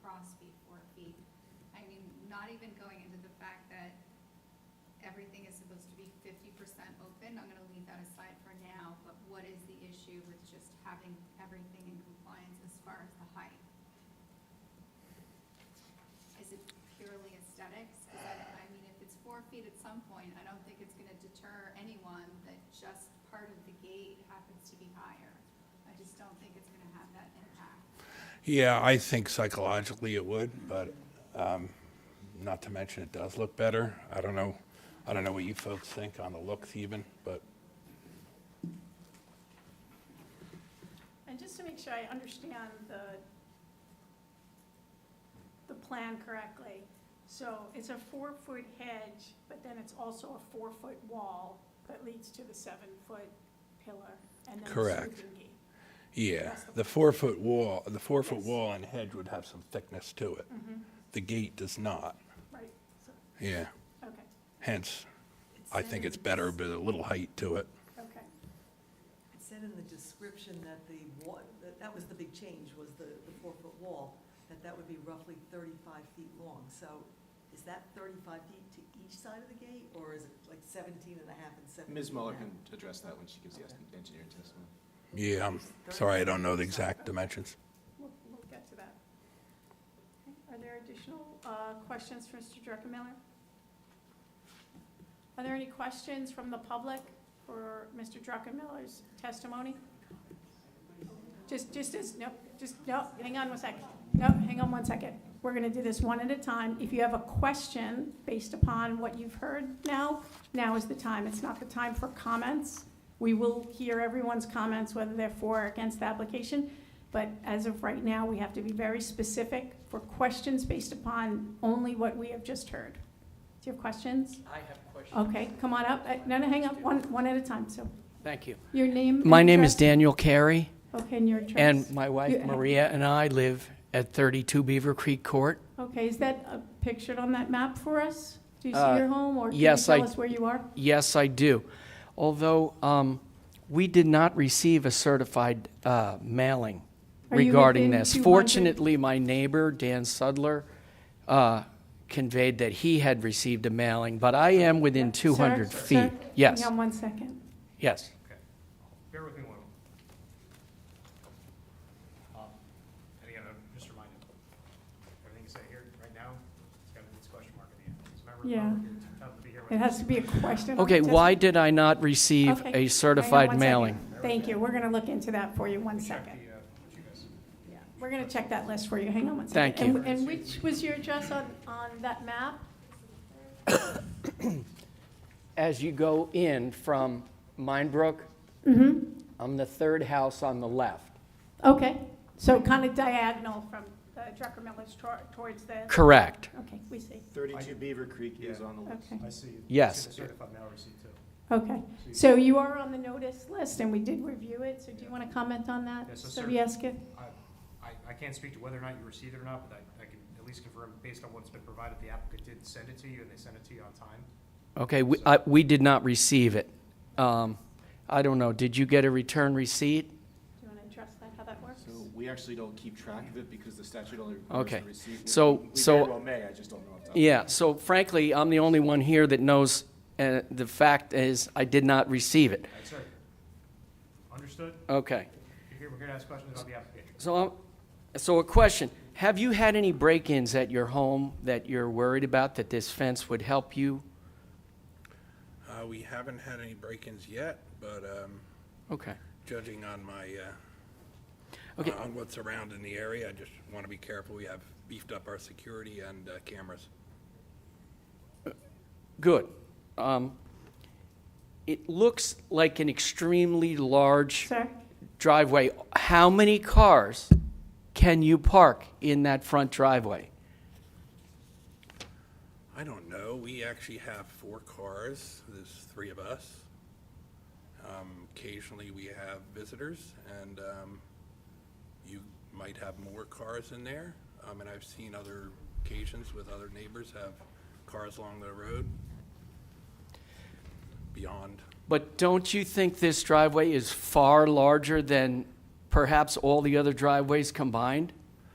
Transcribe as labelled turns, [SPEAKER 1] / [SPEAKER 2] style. [SPEAKER 1] cross be four feet. I mean, not even going into the fact that everything is supposed to be fifty percent open, I'm gonna leave that aside for now, but what is the issue with just having everything in compliance as far as the height? Is it purely aesthetics? 'Cause I, I mean, if it's four feet at some point, I don't think it's gonna deter anyone that just part of the gate happens to be higher. I just don't think it's gonna have that impact.
[SPEAKER 2] Yeah, I think psychologically it would, but um, not to mention it does look better. I don't know, I don't know what you folks think on the looks even, but
[SPEAKER 3] And just to make sure I understand the, the plan correctly, so it's a four-foot hedge, but then it's also a four-foot wall that leads to the seven-foot pillar and then the
[SPEAKER 2] Correct.
[SPEAKER 3] sweeping gate.
[SPEAKER 2] yeah,
[SPEAKER 3] That's the-
[SPEAKER 2] the four foot wall, the four foot
[SPEAKER 3] Yes.
[SPEAKER 2] wall and hedge would have some thickness to it. The gate does not,
[SPEAKER 3] Mm-hmm. Right, so,
[SPEAKER 2] yeah.
[SPEAKER 3] okay,
[SPEAKER 2] Hence, I think it's better, but a little height to it.
[SPEAKER 3] okay.
[SPEAKER 4] It said in the description that the wa, that, that was the big change, was the, the four-foot wall, that that would be roughly thirty-five feet long. So is that thirty-five feet to each side of the gate, or is it like seventeen and a half and seventeen?
[SPEAKER 5] Ms.
[SPEAKER 4] and a
[SPEAKER 5] Muller
[SPEAKER 4] half?
[SPEAKER 5] can address that when she gives the estimate- engineering testimony.
[SPEAKER 2] Yeah, I'm Um, sorry, I don't know the exact dimensions.
[SPEAKER 3] We'll, we'll get to that. Okay, Are there additional uh, questions for Mr. Druckenmiller? Are there any questions from the public for Mr. Druckenmiller's testimony? Just, just as, no, just, no, hang on one second. No, hang on one second. We're going to do this one at a time. If you have a question based upon what you've heard now, now is the time. It's not the time for comments. We will hear everyone's comments, whether they're for or against the application. But as of right now, we have to be very specific for questions based upon only what we have just heard. Do you have questions?
[SPEAKER 6] I have questions.
[SPEAKER 3] Okay, come on up. Uh, No, no, hang up, one, one at a time, so.
[SPEAKER 6] Thank you.
[SPEAKER 3] Your name? and
[SPEAKER 6] My name is
[SPEAKER 3] address?
[SPEAKER 6] Daniel Carey,
[SPEAKER 3] Okay, and your address?
[SPEAKER 6] and my wife
[SPEAKER 3] You-
[SPEAKER 6] Maria and I live at 32 Beaver Creek Court.
[SPEAKER 3] Okay, is that uh, pictured on that map for us? Do you see
[SPEAKER 6] Uh,
[SPEAKER 3] your home, or can you
[SPEAKER 6] yes, I-
[SPEAKER 3] tell us where you are?
[SPEAKER 6] Yes, I do. Although um, we did not receive a certified uh, mailing
[SPEAKER 3] Are you
[SPEAKER 6] regarding
[SPEAKER 3] within
[SPEAKER 6] this.
[SPEAKER 3] 200?
[SPEAKER 6] Fortunately, my neighbor, Dan Sudler, uh, conveyed that he had received a mailing, but I am within
[SPEAKER 3] Sir,
[SPEAKER 6] 200
[SPEAKER 3] sir,
[SPEAKER 6] feet. Yes,
[SPEAKER 3] Hang on one second.
[SPEAKER 6] yes.
[SPEAKER 7] Okay. Bear with me one moment. Um, And again, I'm just reminded, everything you say here right now, it's got this question mark at the end. It's a member of the
[SPEAKER 3] Yeah.
[SPEAKER 7] public, it's entitled to be here when
[SPEAKER 3] It has to be a question.
[SPEAKER 6] Okay, why did I not receive
[SPEAKER 3] Okay, hang on
[SPEAKER 6] a
[SPEAKER 3] one
[SPEAKER 6] certified
[SPEAKER 3] second.
[SPEAKER 6] mailing?
[SPEAKER 3] Thank you, we're going to look into that for you, one
[SPEAKER 7] Check
[SPEAKER 3] second.
[SPEAKER 7] the, uh, what you guys.
[SPEAKER 3] Yeah, We're going to check that list for you. Hang on one second.
[SPEAKER 6] Thank you.
[SPEAKER 3] And- And which was your address on, on that map?
[SPEAKER 6] as you go in from Minebrook, I'm the third house on the left.
[SPEAKER 3] Okay, so kind of diagonal from uh, Drucker Miller's tor- towards the,
[SPEAKER 6] Correct.
[SPEAKER 3] okay, we see.
[SPEAKER 5] 32 Beaver Creek
[SPEAKER 7] is
[SPEAKER 5] on the
[SPEAKER 3] Okay,
[SPEAKER 7] I see. you.
[SPEAKER 6] Yes.
[SPEAKER 7] I see the certified mail receipt too.
[SPEAKER 3] okay. So you are on the notice list, and we did review it, so do you want to comment on that?
[SPEAKER 7] Yes, so
[SPEAKER 3] Mr.
[SPEAKER 7] cer-
[SPEAKER 3] Vieska?
[SPEAKER 7] I, I- I can't speak to whether or not you received it or not, but I, I can at least confirm, based on what's been provided, the applicant did send it to you, and they sent it to you on time.
[SPEAKER 6] Okay, we, I, we did not receive it. Um, I don't know, did you get a return receipt?
[SPEAKER 3] Do you want to address that, how that works?
[SPEAKER 5] So we actually don't keep track of it because the statute only requires
[SPEAKER 6] Okay.
[SPEAKER 5] the receipt.
[SPEAKER 6] So-
[SPEAKER 5] We
[SPEAKER 6] so-
[SPEAKER 5] very well may, I just don't know. off the top of my
[SPEAKER 6] Yeah, so frankly, I'm the only one here that knows, uh, the fact is, I did not receive it.
[SPEAKER 7] All right, sir. Understood?
[SPEAKER 6] Okay,
[SPEAKER 7] You're here, we're here to ask questions about the application.
[SPEAKER 6] so, I'm- so a question. Have you had any break-ins at your home that you're worried about, that this fence would help you?
[SPEAKER 2] Uh, we haven't had any break-ins yet, but, um,
[SPEAKER 6] Okay.
[SPEAKER 2] judging on my, uh,
[SPEAKER 6] Okay.
[SPEAKER 2] on what's around in the area, I just want to be careful. We have beefed up our security and uh, cameras.
[SPEAKER 6] Good. Um, It looks like an extremely large
[SPEAKER 3] Sir?
[SPEAKER 6] driveway. How many cars can you park in that front driveway?
[SPEAKER 2] I don't know, we actually have four cars, there's three of us. Um, Occasionally, we have visitors, and um, you might have more cars in there. Um, And I've seen other occasions with other neighbors have cars along the road beyond.
[SPEAKER 6] But don't you think this driveway is far larger than perhaps all the other driveways combined?